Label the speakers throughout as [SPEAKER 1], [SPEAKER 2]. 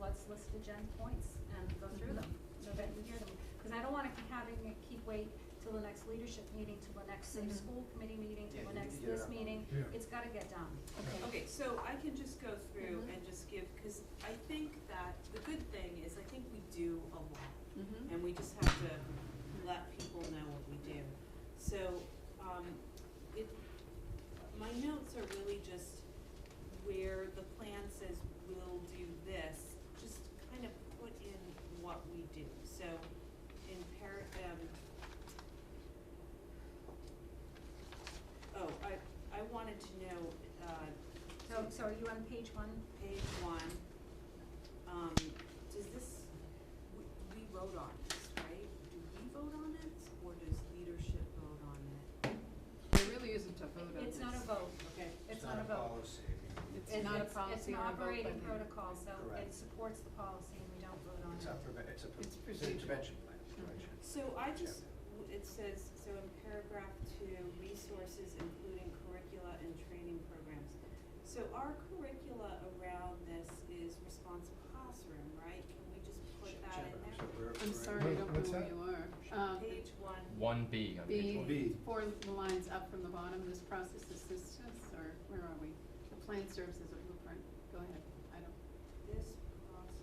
[SPEAKER 1] let's list agenda points and go through them, so that you hear them. Because I don't want to having it keep wait till the next leadership meeting, till the next safe
[SPEAKER 2] Mhm.
[SPEAKER 1] school committee meeting, till
[SPEAKER 3] Yeah,
[SPEAKER 1] the
[SPEAKER 3] you need
[SPEAKER 1] next
[SPEAKER 3] to get it
[SPEAKER 1] this
[SPEAKER 3] out.
[SPEAKER 1] meeting.
[SPEAKER 4] Yeah.
[SPEAKER 1] It's gotta get done.
[SPEAKER 2] Okay.
[SPEAKER 5] Okay, so I can just go through
[SPEAKER 2] Mhm.
[SPEAKER 5] and just give, because I think that, the good thing is I think we do a lot.
[SPEAKER 2] Mm-hmm.
[SPEAKER 5] And we just have to let people know what we do. So, um, it, my notes are really just where the plan says we'll do this, just kind of put in what we do. So in par, um, oh, I, I wanted to know, uh,
[SPEAKER 1] So, so are you on page one?
[SPEAKER 5] page one, um, does this, we, we vote on this, right? Do we vote on it, or does leadership vote on it?
[SPEAKER 2] There really isn't a vote on this.
[SPEAKER 1] It's not a vote,
[SPEAKER 5] Okay,
[SPEAKER 1] it's not a vote.
[SPEAKER 3] policy.
[SPEAKER 2] It's
[SPEAKER 1] It-
[SPEAKER 2] not a
[SPEAKER 1] It's
[SPEAKER 2] policy
[SPEAKER 1] an
[SPEAKER 2] or a vote by
[SPEAKER 1] operating
[SPEAKER 2] the-
[SPEAKER 1] protocol, so it
[SPEAKER 3] Correct.
[SPEAKER 1] supports the policy and we don't vote on it.
[SPEAKER 3] It's a, preve- it's a, pre-
[SPEAKER 2] It's
[SPEAKER 3] it's
[SPEAKER 2] procedure.
[SPEAKER 3] an intervention plan, it's
[SPEAKER 2] Mhm.
[SPEAKER 3] intervention.
[SPEAKER 5] so I just, w- it says, so in paragraph two, resources including curricula and training programs. So our curricula around this is responsive classroom, right? Can we just put that in
[SPEAKER 3] Shepherd, so
[SPEAKER 5] there?
[SPEAKER 3] we're-
[SPEAKER 2] I'm
[SPEAKER 3] we're-
[SPEAKER 2] sorry, I don't know
[SPEAKER 4] What's
[SPEAKER 2] where
[SPEAKER 4] that?
[SPEAKER 2] you are. Um,
[SPEAKER 5] Page one,
[SPEAKER 6] One B on
[SPEAKER 2] B,
[SPEAKER 6] page one.
[SPEAKER 3] B.
[SPEAKER 2] four lines up from the bottom, this process assistance, or where are we? The plan serves as a blueprint, go ahead, I don't,
[SPEAKER 5] this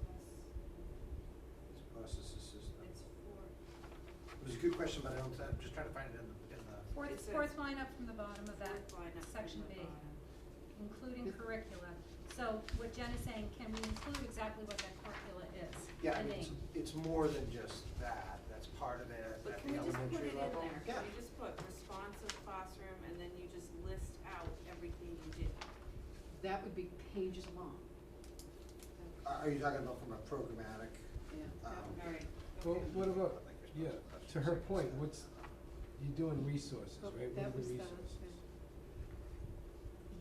[SPEAKER 5] process,
[SPEAKER 3] It's a process assistant.
[SPEAKER 5] it's for,
[SPEAKER 3] It was a good question, but I don't, I'm just trying to find it in the, in the,
[SPEAKER 1] Fourth,
[SPEAKER 5] It's a-
[SPEAKER 1] fourth line up from the bottom of that,
[SPEAKER 5] Fourth line up from
[SPEAKER 1] section
[SPEAKER 5] the
[SPEAKER 1] B,
[SPEAKER 5] bottom.
[SPEAKER 1] including
[SPEAKER 2] With-
[SPEAKER 1] curricula. So what Jen is saying, can we include exactly what that curricula is?
[SPEAKER 3] yeah, I
[SPEAKER 1] The
[SPEAKER 3] mean, it's,
[SPEAKER 1] name.
[SPEAKER 3] it's more than just that, that's part of it at at
[SPEAKER 5] But can
[SPEAKER 3] the
[SPEAKER 5] we just put
[SPEAKER 3] elementary
[SPEAKER 5] it in
[SPEAKER 3] level.
[SPEAKER 5] there?
[SPEAKER 3] Yeah.
[SPEAKER 5] Can you just put responsive classroom and then you just list out everything you do?
[SPEAKER 2] that would be pages long,
[SPEAKER 3] Are, are you talking about from a programmatic,
[SPEAKER 2] yeah.
[SPEAKER 3] um?
[SPEAKER 5] Alright,
[SPEAKER 4] Well,
[SPEAKER 5] okay.
[SPEAKER 4] what about,
[SPEAKER 3] I think there's
[SPEAKER 4] yeah,
[SPEAKER 3] lots of
[SPEAKER 4] to her
[SPEAKER 3] questions.
[SPEAKER 4] point, what's, you're doing resources,
[SPEAKER 2] Well,
[SPEAKER 4] right? What are
[SPEAKER 2] that
[SPEAKER 4] the
[SPEAKER 2] was that,
[SPEAKER 4] resources?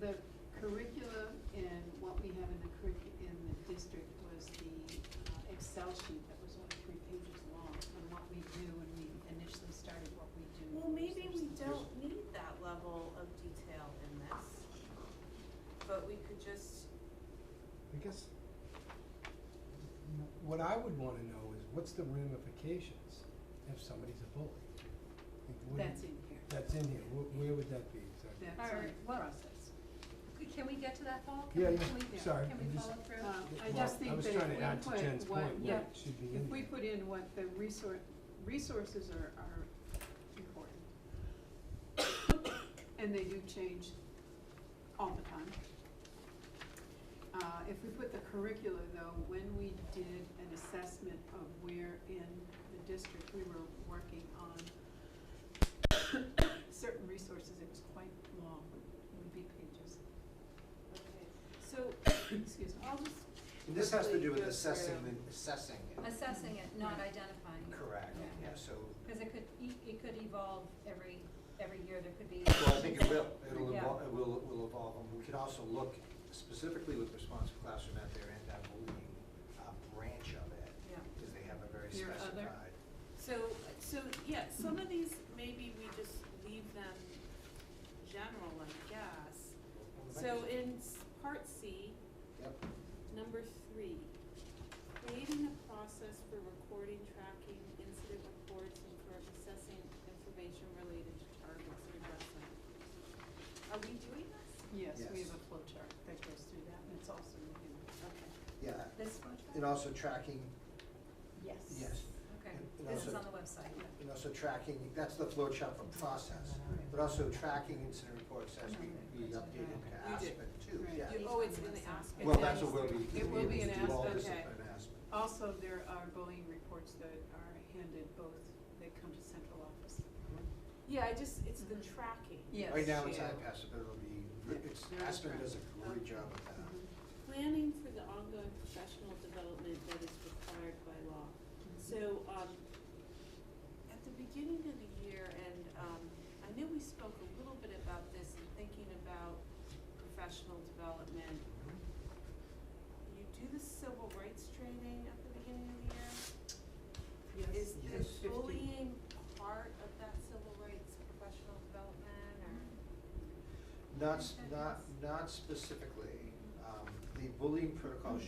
[SPEAKER 2] The curriculum and what we have in the curric- in the district was the uh, Excel sheet that was only three pages long, and what we do when we initially started what we do.
[SPEAKER 5] Well, maybe we don't need that level of detail in this. But we could just,
[SPEAKER 4] I guess, w- what I would wanna know is what's the ramifications if somebody's a bully? Like, what do you-
[SPEAKER 2] That's in here,
[SPEAKER 4] That's in here, wh- where would that be exactly?
[SPEAKER 2] that's in
[SPEAKER 1] Alright,
[SPEAKER 2] the
[SPEAKER 1] what-
[SPEAKER 2] process.
[SPEAKER 1] Could- Can we get to that, Paul? Can
[SPEAKER 4] Yeah,
[SPEAKER 1] we-
[SPEAKER 4] yeah,
[SPEAKER 1] can we-
[SPEAKER 4] sorry,
[SPEAKER 1] Can we
[SPEAKER 4] I'm just-
[SPEAKER 1] follow through?
[SPEAKER 2] Uh, I
[SPEAKER 4] Well,
[SPEAKER 2] just
[SPEAKER 4] I
[SPEAKER 2] think
[SPEAKER 4] was
[SPEAKER 2] that
[SPEAKER 4] trying to add
[SPEAKER 2] if
[SPEAKER 4] to
[SPEAKER 2] we
[SPEAKER 4] Jen's
[SPEAKER 2] put
[SPEAKER 4] point,
[SPEAKER 2] what,
[SPEAKER 4] what
[SPEAKER 2] yeah,
[SPEAKER 4] should be
[SPEAKER 2] if
[SPEAKER 4] in
[SPEAKER 2] we
[SPEAKER 4] there.
[SPEAKER 2] put in what the resource, resources are, are important. And they do change all the time. Uh, if we put the curricula though, when we did an assessment of where in the district we were working on certain resources, it was quite long, it would be pages,
[SPEAKER 5] okay, so
[SPEAKER 2] excuse me.
[SPEAKER 5] I'll just,
[SPEAKER 3] And this has to do with
[SPEAKER 5] Quickly go
[SPEAKER 3] assessing,
[SPEAKER 5] through.
[SPEAKER 3] the- assessing it,
[SPEAKER 1] Assessing it, not identifying it.
[SPEAKER 3] correct,
[SPEAKER 2] Yeah.
[SPEAKER 3] yeah, so,
[SPEAKER 1] Because it could, e- it could evolve every, every year, there could be.
[SPEAKER 3] well, I think it will, it'll
[SPEAKER 1] Yeah.
[SPEAKER 3] evolve, it will, it will evolve, and we could also look specifically with responsive classroom at their anti-bullying, uh, branch of it,
[SPEAKER 1] Yeah.
[SPEAKER 3] because they have a very
[SPEAKER 2] Your other?
[SPEAKER 3] specified.
[SPEAKER 5] so, so, yeah, some of these, maybe we just leave them general, I guess. So in s- part C,
[SPEAKER 3] Yep.
[SPEAKER 5] Number three, creating a process for recording, tracking incident reports, and for assessing information related to targets and addressing. Are we doing this?
[SPEAKER 2] Yes, we have
[SPEAKER 3] Yes.
[SPEAKER 2] a flow chart that goes through that, and it's also in here.
[SPEAKER 5] Okay.
[SPEAKER 3] Yeah,
[SPEAKER 1] This one?
[SPEAKER 3] and also tracking,
[SPEAKER 2] Yes.
[SPEAKER 3] yes,
[SPEAKER 1] Okay,
[SPEAKER 3] and
[SPEAKER 1] this is
[SPEAKER 3] also-
[SPEAKER 1] on the website.
[SPEAKER 3] and also tracking, that's the flow chart for process, but also tracking incident reports as we, we update
[SPEAKER 5] We
[SPEAKER 3] into
[SPEAKER 5] do.
[SPEAKER 3] Aspen too,
[SPEAKER 2] Right.
[SPEAKER 3] yeah.
[SPEAKER 5] You- Oh, it's in the aspect.
[SPEAKER 3] Well,
[SPEAKER 2] And
[SPEAKER 3] that's
[SPEAKER 2] then
[SPEAKER 3] what we'll be,
[SPEAKER 2] It
[SPEAKER 3] we'll
[SPEAKER 2] will
[SPEAKER 3] be
[SPEAKER 2] be
[SPEAKER 3] able
[SPEAKER 2] an
[SPEAKER 3] to do all
[SPEAKER 2] Aspen.
[SPEAKER 3] this in
[SPEAKER 5] Okay.
[SPEAKER 3] Aspen.
[SPEAKER 2] Also, there are bullying reports that are handed both, that come to central office.
[SPEAKER 5] Yeah, I just, it's the
[SPEAKER 2] Mhm.
[SPEAKER 5] tracking.
[SPEAKER 2] Yes.
[SPEAKER 3] Right now, it's
[SPEAKER 5] Yeah.
[SPEAKER 3] iPass, but it'll be, it's,
[SPEAKER 2] Yeah.
[SPEAKER 3] Aspen does a great job of that.
[SPEAKER 2] Mhm.
[SPEAKER 5] Planning for the ongoing professional development that is required by law. So, um, at the beginning of the year, and, um, I know we spoke a little bit about this in thinking about professional development. You do the civil rights training at the beginning of the year?
[SPEAKER 3] Yes.
[SPEAKER 5] Is the bullying part of that civil rights professional development, or?
[SPEAKER 3] Not, s-
[SPEAKER 1] Okay.
[SPEAKER 3] not, not specifically, um, the bullying protocol